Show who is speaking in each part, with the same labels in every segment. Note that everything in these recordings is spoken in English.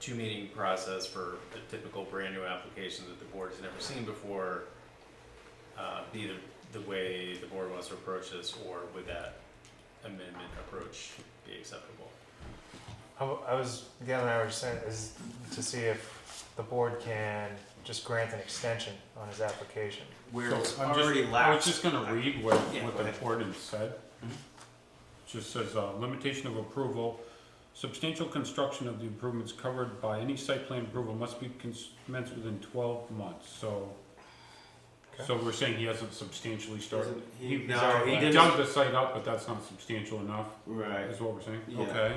Speaker 1: two-meeting process for the typical brand-new application that the board has never seen before, uh, be the, the way the board wants to approach this, or would that amendment approach be acceptable?
Speaker 2: I w- I was, Gail and I were just saying, is to see if the board can just grant an extension on his application.
Speaker 3: where
Speaker 4: So
Speaker 3: it's
Speaker 4: I'm just-
Speaker 3: already
Speaker 4: I was
Speaker 3: lapsed.
Speaker 4: just gonna read what,
Speaker 3: Yeah,
Speaker 4: what
Speaker 3: go
Speaker 4: the
Speaker 3: ahead. Mm-hmm.
Speaker 4: ordinance said. Just says, uh, limitation of approval, substantial construction of the improvements covered by any site plan approval must be cons- commenced within twelve months, so.
Speaker 2: Okay.
Speaker 4: So we're saying he hasn't substantially started,
Speaker 3: Doesn't- he-
Speaker 4: he, he's
Speaker 3: no, he
Speaker 4: already
Speaker 3: didn't-
Speaker 4: dug the site up, but that's not substantial enough.
Speaker 3: Right.
Speaker 4: Is what we're saying,
Speaker 3: Yeah.
Speaker 4: okay.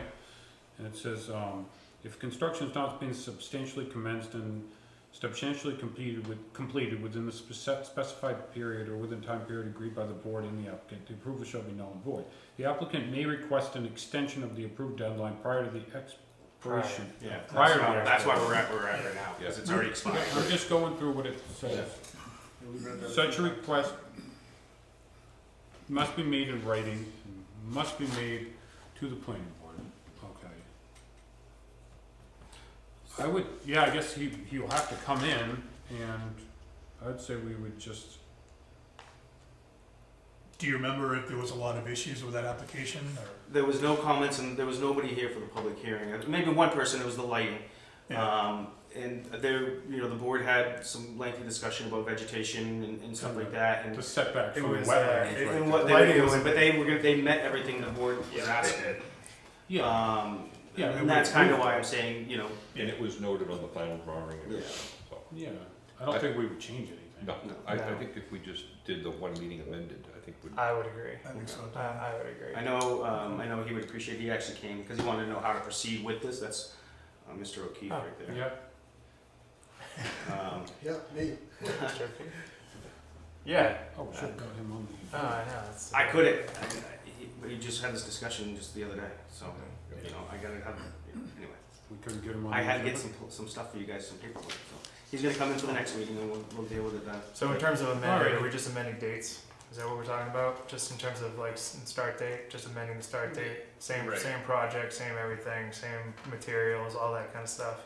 Speaker 4: And it says, um, if construction is not being substantially commenced and substantially completed with, completed within the spec- specified period or within time period agreed by the board and the applicant, the approval shall be null and void. The applicant may request an extension of the approved deadline prior to the expiration.
Speaker 3: Yeah. that's,
Speaker 4: Prior to
Speaker 3: why,
Speaker 4: the
Speaker 3: that's why we're at where we're at right now because it's already expired.
Speaker 4: I'm just going through what it says. Such a request must be made in writing, must be made to the planning board, okay. I would, yeah, I guess he, he'll have to come in, and I'd say we would just,
Speaker 5: Do you remember if there was a lot of issues with that application or?
Speaker 3: There was no comments and there was nobody here for the public hearing. Uh, Maybe one person. It was the lighting.
Speaker 5: Yeah.
Speaker 3: Um, and there, you know, the board had some lengthy discussion about vegetation and, and stuff like that, and,
Speaker 4: the setback
Speaker 2: It
Speaker 4: from the
Speaker 2: was, uh,
Speaker 4: wetland.
Speaker 3: and, and what they were doing. But they were gonna- they met everything the board was asking.
Speaker 4: Yeah,
Speaker 3: Um,
Speaker 4: Yeah,
Speaker 3: and
Speaker 4: it
Speaker 3: that's
Speaker 4: was
Speaker 3: kind of
Speaker 4: moved.
Speaker 3: why I'm saying, you know,
Speaker 6: And it was noted on the final drawing. and everything, so.
Speaker 4: yeah, I don't think we would change anything.
Speaker 6: No, I, I
Speaker 2: No.
Speaker 6: think if we just did the one meeting amended, I think would,
Speaker 2: I would agree.
Speaker 5: I think so.
Speaker 2: I, I would agree.
Speaker 3: I know, um, I know he would appreciate. He actually came because he wanted to know how to proceed with this. That's uh, Mr. O'Keefe
Speaker 2: Oh,
Speaker 3: right there.
Speaker 4: Yeah,
Speaker 3: Um,
Speaker 7: Yeah, me.
Speaker 2: Mr. P. Yeah.
Speaker 4: oh, we should have got him on
Speaker 2: Oh,
Speaker 4: the.
Speaker 2: I know. that's-
Speaker 3: I couldn't. I, I, he- we just had this discussion just the other day, so
Speaker 6: Okay.
Speaker 3: you know, I gotta have. Anyway,
Speaker 4: We couldn't get him on.
Speaker 3: I
Speaker 4: the
Speaker 3: had to get
Speaker 4: agenda.
Speaker 3: some some stuff for you guys, some paperwork. So he's gonna come in for the next meeting, and we'll, we'll deal with it then.
Speaker 2: So in terms of amending,
Speaker 4: Alright.
Speaker 2: are we just amending dates? Is that what we're talking about? Just in terms of like s- start date, just amending the start date, same,
Speaker 1: Right.
Speaker 2: same project, same everything, same materials, all that kind of stuff.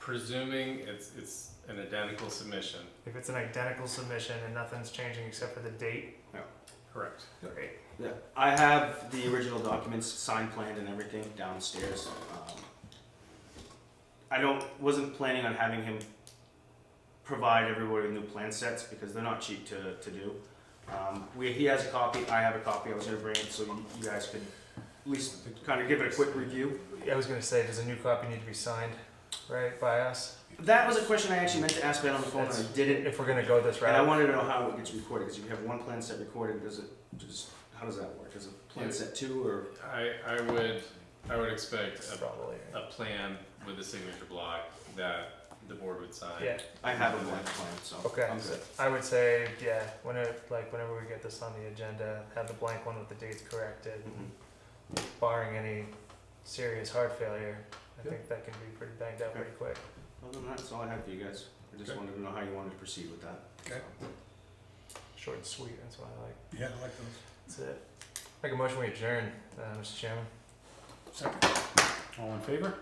Speaker 1: Presuming it's, it's an identical submission,
Speaker 2: If it's an identical submission and nothing's changing except for the date,
Speaker 1: correct?
Speaker 2: great.
Speaker 3: Yeah, I have the original documents, signed, planned, and everything downstairs. Um, I don't, wasn't planning on having him provide everybody with new plan sets because they're not cheap to, to do. Um, we, he has a copy, I have a copy, I was gonna bring it so you, you guys could at least kind of give it a quick review.
Speaker 2: I was gonna say, does a new copy need to be signed, right, by us?
Speaker 3: That was a question I actually meant to ask Ben on the phone and I
Speaker 2: That's-
Speaker 3: didn't.
Speaker 2: If we're gonna go this
Speaker 3: And I
Speaker 2: route,
Speaker 3: wanted to know how it gets recorded, because you have one plan set recorded, does it, just, how does that work? Is it plan set two or?
Speaker 1: I, I would, I would expect a
Speaker 2: probably.
Speaker 1: a plan with a signature block that the board would sign.
Speaker 2: Yeah,
Speaker 3: I have a blank plan, so.
Speaker 2: Okay.
Speaker 3: I'm good.
Speaker 2: I would say, yeah, whenever, like, whenever we get this on the agenda, have the blank one with the dates corrected,
Speaker 3: Mhm.
Speaker 2: barring any serious heart failure. I
Speaker 3: Yeah.
Speaker 2: think that can be pretty banged out
Speaker 3: Okay.
Speaker 2: pretty quick.
Speaker 3: Other than that, that's all I have for you guys. I just
Speaker 4: Okay.
Speaker 3: wanted to know how you wanted to proceed with that.
Speaker 5: Okay.
Speaker 2: Short and sweet, that's what I like.
Speaker 5: Yeah, I like those.
Speaker 2: That's it. Make a motion we adjourn, uh, Mr. Chairman.
Speaker 5: Second.
Speaker 4: All in favor?